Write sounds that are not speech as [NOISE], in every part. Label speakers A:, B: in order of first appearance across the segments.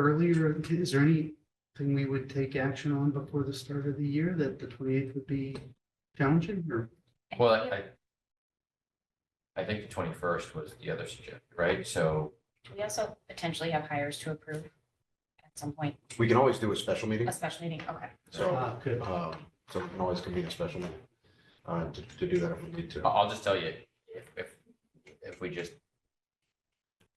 A: earlier, is there anything we would take action on before the start of the year that the twenty eighth would be challenging or?
B: Well, I. I think the twenty first was the other suggestion, right? So,
C: We also potentially have hires to approve at some point,
D: We can always do a special meeting,
C: a special meeting, okay.
D: so,
A: Ah, Good.
D: um, so we can always convene a special meeting. Uh, to, to do that if we need
B: I-
D: to.
B: I'll just tell you, if, if, if we just.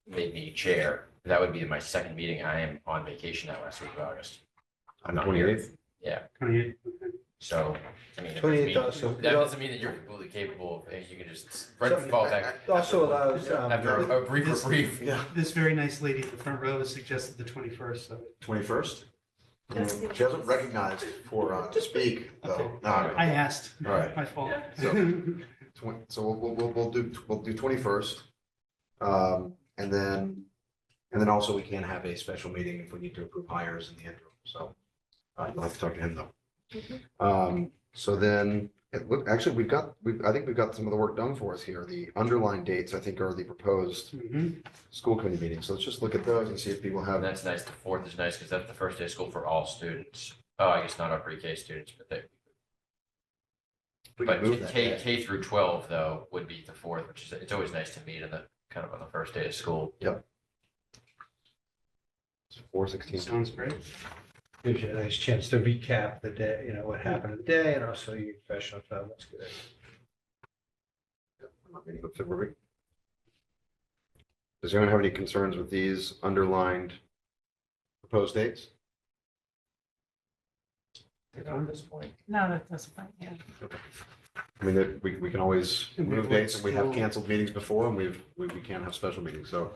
B: Made me chair, that would be my second meeting. I am on vacation that last week of August.
D: On
B: Not
D: twenty
B: here.
D: eighth,
A: Twenty eighth, okay.
B: So, I mean. if there's
E: 28th
B: meeting-
E: also-
B: That doesn't mean that uh, you're completely capable of, you can just right, fall back.
E: Also allows, um,
B: After a brief
A: This-
B: reprieve.
D: yeah,
A: This very nice lady in the front row has suggested the twenty first, so
D: twenty first. She hasn't recognized for, uh, to speak, though.
A: Okay.
D: All right.
A: I asked.
D: All right.
A: My fault. [LAUGHS]
D: So- Twen- So we'll, we'll, we'll, we'll do, we'll do twenty first. Um, and then, and then also we can have a special meeting if we need to approve hires in the interim, so. Uh, you'll have to talk to him though. Um, so then, it, look, actually, we've got, we, I think we've got some of the work done for us here. The underlying dates, I think, are the proposed
A: Mhm.
D: school committee meetings. So let's just look at those and see if people
B: And
D: have.
B: that's nice. The fourth is nice because that's the first day of school for all students. Oh, I guess not our pre-K students, but they,
D: we can
B: But
D: move that
B: K,
D: day.
B: K through twelve though would be the fourth, which is, it's always nice to meet on the, kind of on the first day of school.
D: Four sixteen.
A: Sounds great.
E: Gives you a nice chance to recap the day, you know, what happened in the day and also your professional development's good.
D: February. Does anyone have any concerns with these underlined proposed dates?
B: At this point.
F: No, that doesn't, yeah.
D: I mean, that we, we can always
A: And we
D: move
A: will
D: dates and we have
A: still-
D: canceled meetings before and we've, we, we can have special meetings. So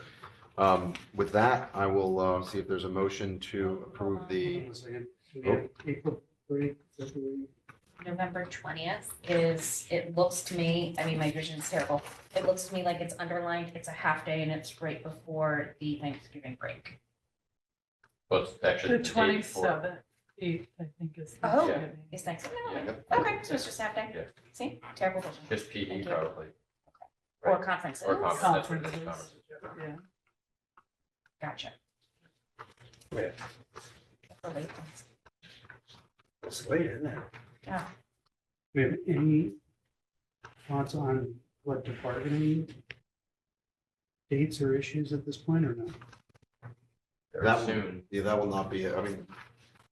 D: um, with that, I will uh, see if there's a motion to approve
A: Hold
D: the,
A: on a second. We
D: Oh.
A: have April break, February.
C: November twentieth is, it looks to me, I mean, my vision's terrible. It looks to me like it's underlined, it's a half day and it's right before the Thanksgiving break.
B: Well, it's
F: The
B: actually. the day before.
F: twenty-seventh, eighth, I think is.
C: Oh.
F: Thanksgiving.
C: It's Thanksgiving,
B: Yeah.
C: okay, so it's just half
B: Yeah.
C: day. See, terrible vision.
B: Just PE
C: Thank you.
B: probably,
C: Or conferences,
B: or conference, that's what it is,
F: Conferences.
B: conferences,
F: Yeah.
B: yeah.
C: gotcha.
E: Yeah.
C: For late ones.
E: It's late, isn't it?
A: We have any thoughts on collective bargaining? Dates or issues at this point or not?
B: They're
D: That one.
B: Soon,
D: yeah, that will not be, I mean,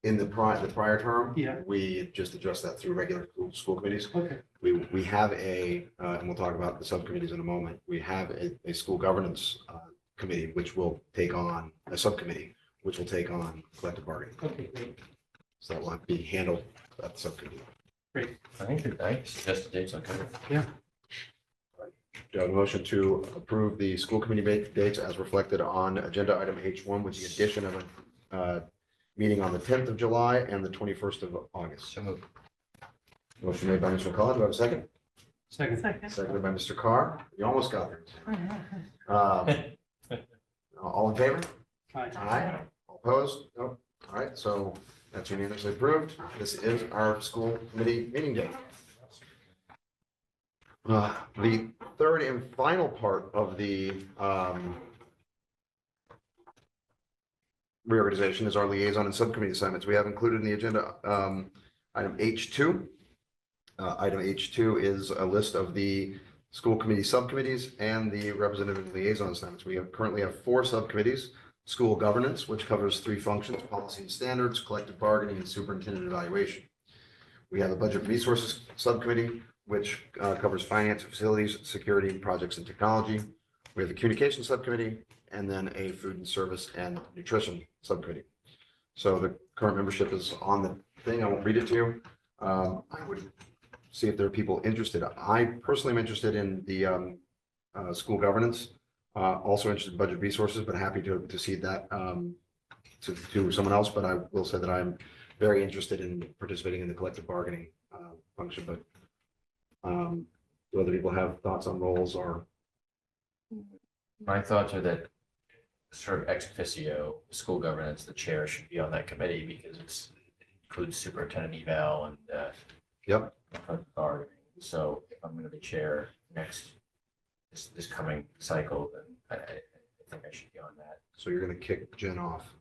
D: in the prior, the prior term.
A: Yeah.
D: We just addressed that through regular school- school committees.
A: Okay,
D: We, we have a, uh, and we'll talk about the subcommittees in a moment, we have a, a school governance uh, committee, which will take on, a subcommittee, which will take on collective bargaining.
A: okay, great.
D: So that will have to be handled at the subcommittee.
B: I think you're right, suggested dates on cover.
D: Do I have a motion to approve the school committee ba- dates as reflected on agenda item H one with the addition of a uh, meeting on the tenth of July and the twenty-first of August?
B: So moved.
D: Motion made by Mr. McCollum, do I have a second?
A: Second,
F: Second.
D: Seconded by Mr. Carr, you almost got there. Um, All in favor?
A: Aye.
D: Aye. All Opposed? Nope. All right, so that's unanimously approved. This is our school committee meeting day. Uh, The third and final part of the um, reorganization is our liaison and subcommittee assignments. We have included in the agenda um, item H2. Uh, Item H2 is a list of the school committee subcommittees and the representative liaison assignments. We have- currently have four subcommittees school governance, which covers three functions, policy and standards, collective bargaining, and superintendent evaluation. We have a budget resources subcommittee, which uh, covers finance, facilities, security, projects, and technology. We have a communication subcommittee, and then a food and service and nutrition subcommittee. So the current membership is on the thing. I won't read it to you. Um, I would see if there are people interested. I personally am interested in the um, uh, school governance. Uh, also interested in budget resources, but happy to, to see that, um, to, to someone else, but I will say that I'm very interested in participating in the collective bargaining, uh, function, but, um, do other people have thoughts on roles or,
B: My thoughts are that sort of ex officio, school governance, the chair should be on that committee because it's it includes superintendent eval and uh,
D: yep,
B: collective bargaining. So if I'm gonna be chair next, this, this coming cycle, then I, I I think I should be on that.
D: so you're gonna kick Jen off.